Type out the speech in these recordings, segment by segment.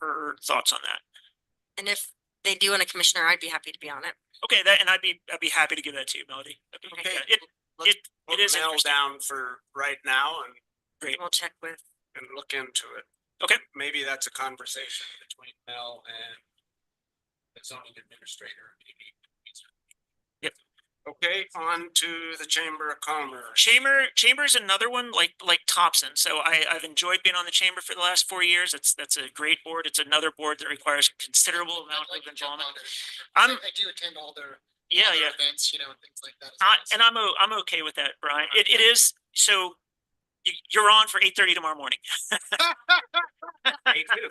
her thoughts on that. And if they do want a commissioner, I'd be happy to be on it. Okay, that, and I'd be, I'd be happy to give that to you, Melody. That'd be- Okay. yeah, It, it, it is nail interesting. down for right now and, Great. We'll check with, and look into it. Okay. Maybe that's a conversation between Mel and the zoning administrator. maybe. Yep. Okay, on to the Chamber of Commerce. Chamber, Chamber is another one like, like Thompson. So I, I've enjoyed being on the Chamber for the last four years. It's, that's a great board. It's another board that requires considerable amount I'd like of to jump involvement. on there. I'm- I I do attend all their. Yeah, all their yeah. Events, you know, and things like that. as I, well, so- and I'm, o- I'm okay with that, Brian. It, it is, so you, you're on for eight thirty tomorrow morning. Me too.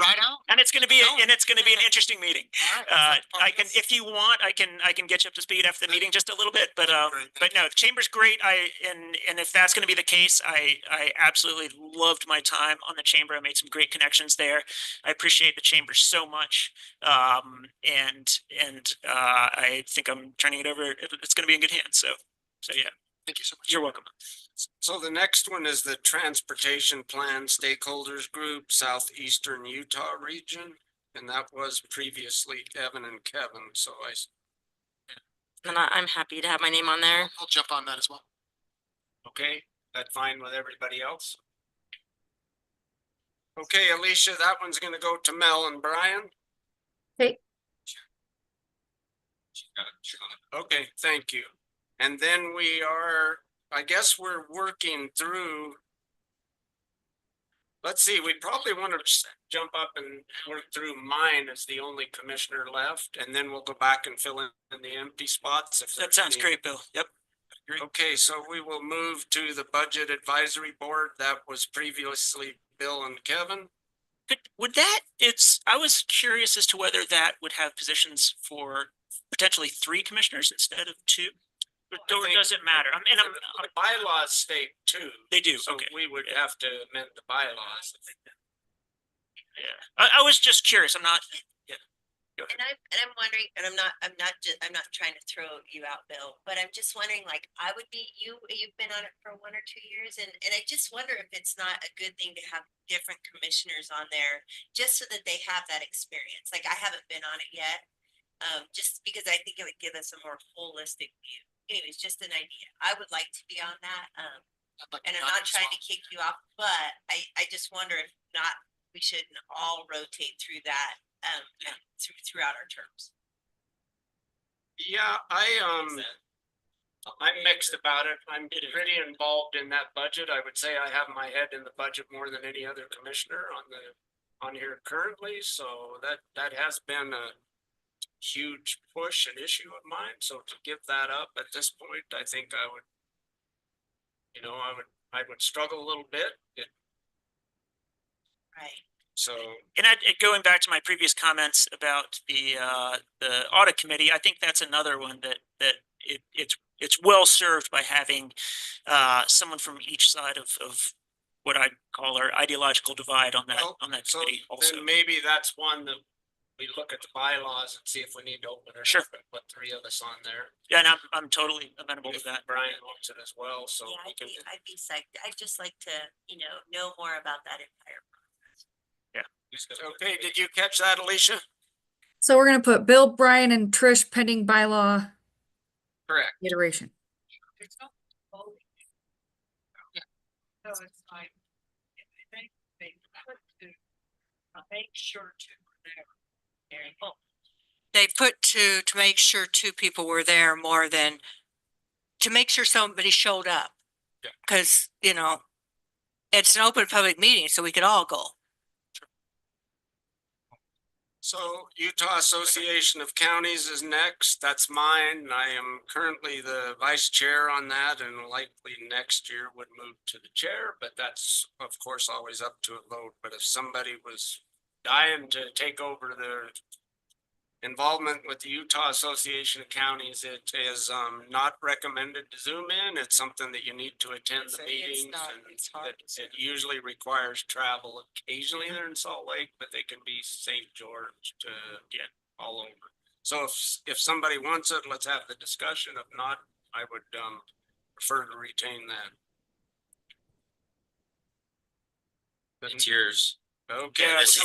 Right on. And it's gonna be, No. and it's gonna be an interesting meeting. All right, Uh, that's part I of can, this. if you want, I can, I can get you up to speed after the meeting just a little bit, but, um, Great, but no, the chamber's great. I, and, and if that's gonna be the case, I, I absolutely loved my time on the chamber. I made some great connections there. I appreciate the chamber so much. Um, and, and, uh, I think I'm turning it over. It- It's gonna be in good hands. So, so yeah, Thank you so much. you're welcome. So the next one is the Transportation Plan Stakeholders Group Southeastern Utah Region. And that was previously Evan and Kevin, so I s- and I, I'm happy to have my name on there. I'll jump on that as well. Okay, that fine with everybody else? Okay, Alicia, that one's gonna go to Mel and Brian. Okay. Okay, thank you. And then we are, I guess we're working through. Let's see, we probably wanna s- jump up and work through mine as the only commissioner left, and then we'll go back and fill in the empty spots if. That there's sounds any. great, Bill. Yep. Okay, so we will move to the Budget Advisory Board that was previously Bill and Kevin. Could, would that, it's, I was curious as to whether that would have positions for potentially three commissioners instead of two? Or I or think- does it matter? I'm, and I'm, The bylaws state two, they do, so okay, we would yeah. have to amend the bylaws. yeah. I, I was just curious, I'm not, And I'm, and I'm wondering, and I'm not, I'm not, ju- I'm not trying to throw you out, Bill, but I'm just wondering, like, I would be, you, you've been on it for one or two years and, and I just wonder if it's not a good thing to have different commissioners on there, just so that they have that experience. Like, I haven't been on it yet. Um, just because I think it would give us a more holistic view. Anyways, just an idea. I would like to be on that. Um, I'd like and I'm jump on not as trying well. to kick you off, but I, I just wonder if not, we shouldn't all rotate through that, um, through, throughout our terms. Yeah, I, um, I'm mixed about it. I'm It is. pretty involved in that budget. I would say I have my head in the budget more than any other commissioner on the, on here currently, so that, that has been a huge push and issue of mine, so to give that up at this point, I think I would you know, I would, I would struggle a little bit, it, Right. so, and I, and going back to my previous comments about the, uh, the audit committee, I think that's another one that, that it, it's, it's well served by having, uh, someone from each side of, of what I call our ideological divide on that, Well, on that so committee also. then maybe that's one that we look at the bylaws and see if we need to open it Sure. up and put three of us on there. Yeah, and I'm, I'm totally amenable to If that. Brian wants it as well, so Yeah, we I'd can, be, I'd be psyched. I'd just like to, you know, know more about that entire. okay, did you catch that, Alicia? So we're gonna put Bill, Brian, and Trish pending bylaw Correct. iteration. No, it's fine. I think they have to uh, make sure to remember. Very well. they put two to make sure two people were there more than to make sure somebody showed up. Yeah. Cause, you know, it's an open public meeting, so we could all go. So Utah Association of Counties is next. That's mine. I am currently the vice chair on that and likely next year would move to the chair, but that's of course always up to a vote. But if somebody was dying to take over their involvement with the Utah Association of Counties, it is um not recommended to zoom in. It's something that you need to attend the meetings and that it usually requires travel. Occasionally they're in Salt Lake, but they can be St. George to Yeah. all over. So if, if somebody wants it, let's have the discussion. If not, I would, um, prefer to retain that. It's yours. Okay. Yeah, I see.